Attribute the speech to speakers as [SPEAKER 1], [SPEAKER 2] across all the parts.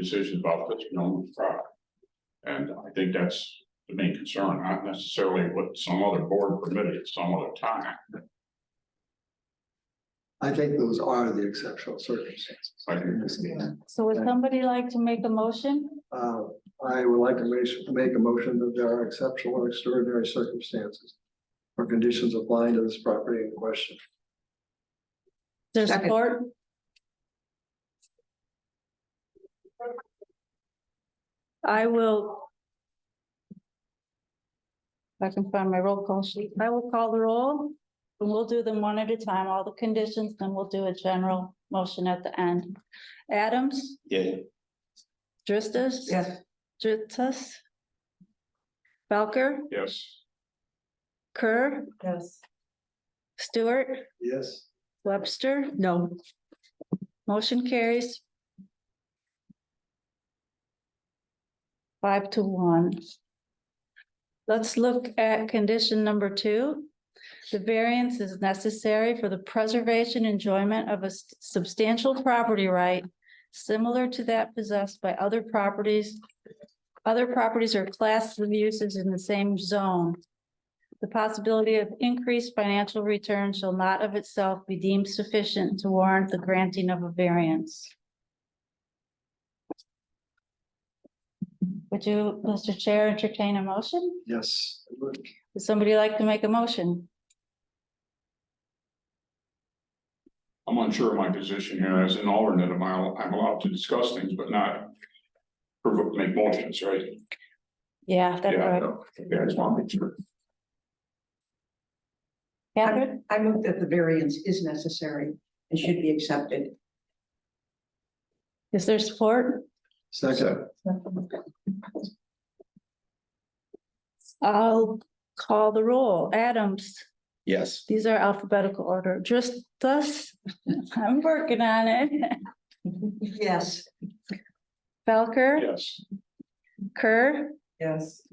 [SPEAKER 1] decision about this known fraud. And I think that's the main concern, not necessarily what some other board permitted at some other time.
[SPEAKER 2] I think those are the exceptional circumstances.
[SPEAKER 1] I do.
[SPEAKER 2] in this case.
[SPEAKER 3] So would somebody like to make a motion?
[SPEAKER 2] Uh, I would like to make, make a motion that there are exceptional and extraordinary circumstances or conditions applying to this property in question.
[SPEAKER 3] There's
[SPEAKER 4] Second.
[SPEAKER 3] support? I will. If I can find my roll call sheet, I will call the roll. And we'll do them one at a time, all the conditions, then we'll do a general motion at the end. Adams?
[SPEAKER 5] Yeah.
[SPEAKER 3] Dristis?
[SPEAKER 4] Yes.
[SPEAKER 3] Dritsas? Belker?
[SPEAKER 1] Yes,
[SPEAKER 3] Kerr?
[SPEAKER 4] Yes.
[SPEAKER 3] Stewart?
[SPEAKER 2] Yes.
[SPEAKER 3] Webster?
[SPEAKER 4] No.
[SPEAKER 3] Motion carries. Five to one. Let's look at condition number two. The variance is necessary for the preservation enjoyment of a s- substantial property right similar to that possessed by other properties. Other properties or classes of uses in the same zone. The possibility of increased financial return shall not of itself be deemed sufficient to warrant the granting of a variance. Would you, Mr. Chair, entertain a motion?
[SPEAKER 2] Yes.
[SPEAKER 3] Would somebody like to make a motion?
[SPEAKER 1] I'm unsure of my position here as an alternate, am I, I'm allowed to discuss things, but not. provoke- Make motions, right?
[SPEAKER 3] Yeah, that's
[SPEAKER 1] Yeah, I
[SPEAKER 3] right.
[SPEAKER 1] know. Yeah, I just want to make sure.
[SPEAKER 3] Catherine,
[SPEAKER 4] I move that the variance is necessary and should be accepted.
[SPEAKER 3] is there support?
[SPEAKER 2] Second,
[SPEAKER 3] I'll call the roll. Adams,
[SPEAKER 5] Yes.
[SPEAKER 3] these are alphabetical order, just us. I'm working on it.
[SPEAKER 4] Yes.
[SPEAKER 3] Belker,
[SPEAKER 1] Yes,
[SPEAKER 3] Kerr,
[SPEAKER 4] Yes.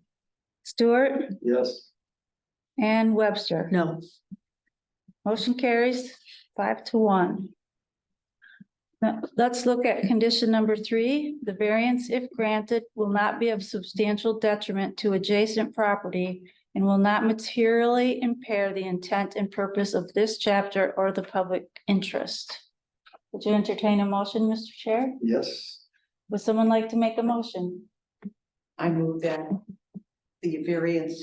[SPEAKER 3] Stewart.
[SPEAKER 2] yes.
[SPEAKER 3] And Webster.
[SPEAKER 4] No.
[SPEAKER 3] Motion carries five to one. Now, let's look at condition number three. The variance, if granted, will not be of substantial detriment to adjacent property and will not materially impair the intent and purpose of this chapter or the public interest. Would you entertain a motion, Mr. Chair?
[SPEAKER 2] Yes.
[SPEAKER 3] Would someone like to make a motion?
[SPEAKER 6] I move that the variance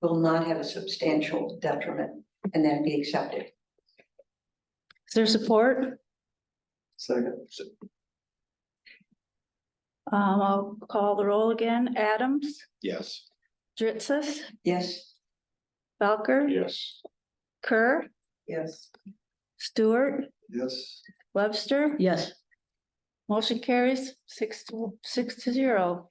[SPEAKER 6] will not have a substantial detriment and that be accepted.
[SPEAKER 3] Is there support?
[SPEAKER 2] Second,
[SPEAKER 3] Um, I'll call the roll again. Adams,
[SPEAKER 5] Yes.
[SPEAKER 3] Dritsas,
[SPEAKER 6] Yes,
[SPEAKER 3] Belker.
[SPEAKER 1] yes,
[SPEAKER 3] Kerr,
[SPEAKER 4] Yes.
[SPEAKER 3] Stewart,
[SPEAKER 2] yes.
[SPEAKER 3] Webster.
[SPEAKER 4] Yes.
[SPEAKER 3] Motion carries six to, six to zero.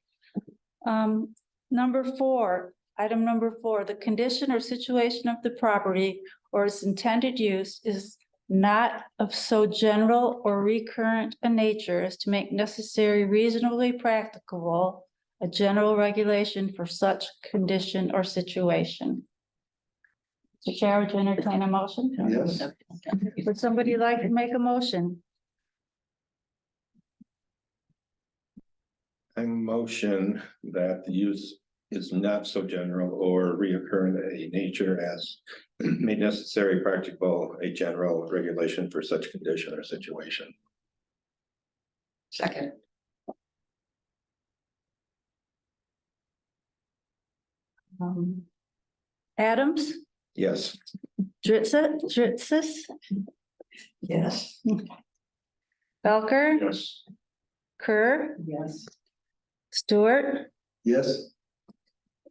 [SPEAKER 3] Um, number four, item number four, the condition or situation of the property or its intended use is not of so general or recurrent a nature as to make necessary reasonably practicable a general regulation for such condition or situation. Mr. Chair, would you entertain a motion?
[SPEAKER 2] Yes.
[SPEAKER 3] Would somebody like to make a motion?
[SPEAKER 5] I motion that the use is not so general or reoccurring a nature as made necessary practical, a general regulation for such condition or situation.
[SPEAKER 6] second,
[SPEAKER 3] Um, Adams,
[SPEAKER 5] Yes.
[SPEAKER 3] Dritsa, Dritsis,
[SPEAKER 6] yes.
[SPEAKER 3] Belker,
[SPEAKER 1] yes.
[SPEAKER 3] Kerr,
[SPEAKER 6] Yes.
[SPEAKER 3] Stewart,
[SPEAKER 2] Yes,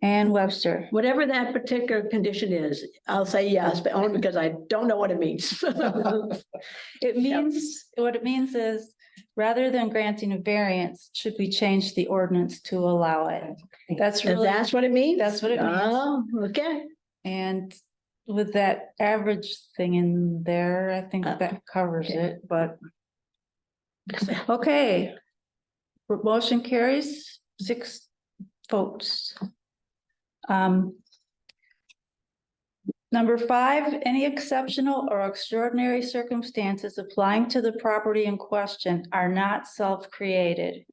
[SPEAKER 3] and Webster.
[SPEAKER 7] Whatever that particular condition is, I'll say yes, but only because I don't know what it means.
[SPEAKER 3] It means, what it means is, rather than granting a variance, should we change the ordinance to allow it? That's
[SPEAKER 7] And
[SPEAKER 3] really,
[SPEAKER 7] that's what it means?
[SPEAKER 3] That's what it means.
[SPEAKER 7] Oh, okay.
[SPEAKER 3] and with that average thing in there, I think
[SPEAKER 7] Uh,
[SPEAKER 3] that covers
[SPEAKER 7] okay.
[SPEAKER 3] it, but. Okay. Motion carries six votes. Um. Number five, any exceptional or extraordinary circumstances applying to the property in question are not self-created.